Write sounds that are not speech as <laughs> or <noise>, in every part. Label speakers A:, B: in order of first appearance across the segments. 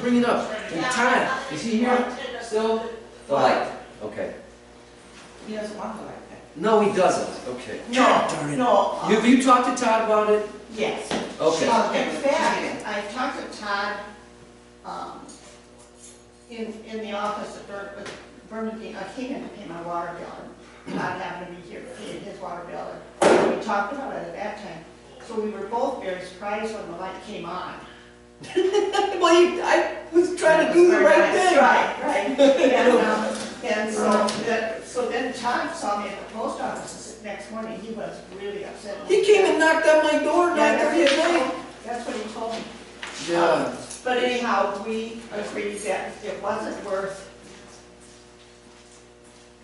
A: bring it up in time. Is he here still? The light, okay.
B: He doesn't want it like that.
A: No, he doesn't, okay.
B: No, no. uh,
A: Have you talked to Todd about it?
B: Yes.
A: Okay,
B: Uh, In fact, I talked to Todd, um, in, in the office at Burn, with Bernadine, I came in to pay my water bill, and Todd happened to be here, paying his water bill, and we talked about it at that time. So we were both very surprised when the light came on.
C: Well, you, I was trying to do the right thing.
B: Right, right. And, um, and so, that- so then Todd saw me at the post office the next morning, he was really upset.
C: He came and knocked on my door at nine
B: Yeah,
C: thirty
B: that's
C: at
B: what he
C: night.
B: told- That's what he told me.
A: yeah,
B: But anyhow, we agreed that it wasn't worth,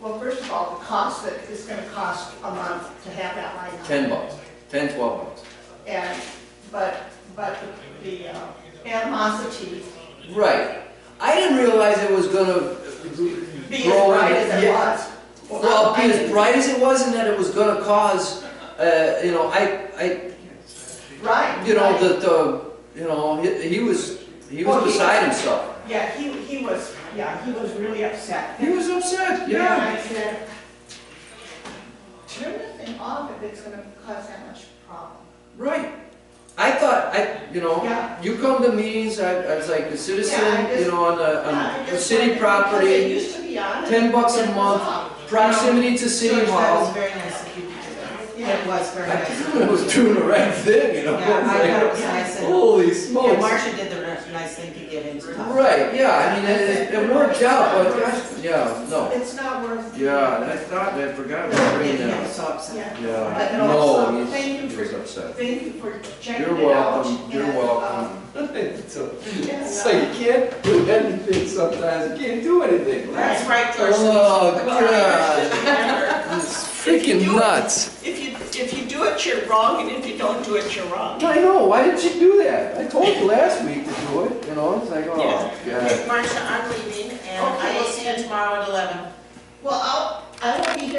B: well, first of all, the cost that it's gonna cost a month to have that light on.
A: ten bucks, ten, twelve bucks.
B: And, but, but the the, uh, animosity
A: Right. I didn't realize it was gonna
B: being as
A: grow.
B: bright
A: in-
B: as it
A: yeah.
B: was.
A: Well,
B: I
A: be as
B: didn't-
A: bright as it was and that it was gonna cause, uh, you know, I, I,
B: Right.
A: you know,
B: right.
A: the, the, you know, he, he was, he
B: Well,
A: was
B: he-
A: beside himself.
B: Yeah, he, he was, yeah, he was really upset.
A: He was upset,
B: And
A: yeah.
B: I said, turn the thing off if it's gonna cause that much problem.
A: Right. I thought, I, you know,
B: Yeah.
A: you come to meetings, I, I was like a
B: Yeah, I
A: citizen,
B: just-
A: you know, on the,
B: Yeah, I
A: on the
B: just
A: city
B: wondered, because It
A: property,
B: used to be on. and
A: ten bucks
B: it
A: a
B: was
A: month,
B: off.
A: proximity to city
D: George, that was
A: hall.
D: very nice of you to do that. It
B: Yeah.
D: was very
A: I <laughs>
D: nice.
A: just was doing the right thing, you know?
D: Yeah, I
A: I was
D: thought it
A: like,
D: was nice. and-
A: Holy
D: Yeah,
A: smokes.
D: Marcia did the ni- nice thing to get into. town.
A: Right, yeah, I mean, it, it- it worked out, but, gosh, yeah, no.
B: It's not worth.
A: Yeah, and I thought, I forgot
D: Yeah,
A: about bringing
D: yeah,
A: that. up.
D: so upset.
B: Yeah.
A: Yeah,
B: But it also-
A: no,
B: thank you
A: he's, he
B: for-
A: was upset.
B: Thank you for
A: You're
B: checking it out.
A: welcome, you're
B: and,
A: welcome. <laughs>
B: um,
A: So,
B: yes,
A: So you can't do anything sometimes, you can't do anything.
D: That's right, George.
A: Oh, God,
D: Remember,
A: it's
D: If
A: freaking
D: you do it-
A: nuts.
D: If you, if you do it, you're wrong, and if you don't do it, you're wrong.
A: I know, why did you do that? I told you last week to do it, you know, it's like, oh,
D: <laughs> Yeah.
A: God.
E: Marcia, I'm leaving, and I will see you tomorrow at eleven.
B: Well,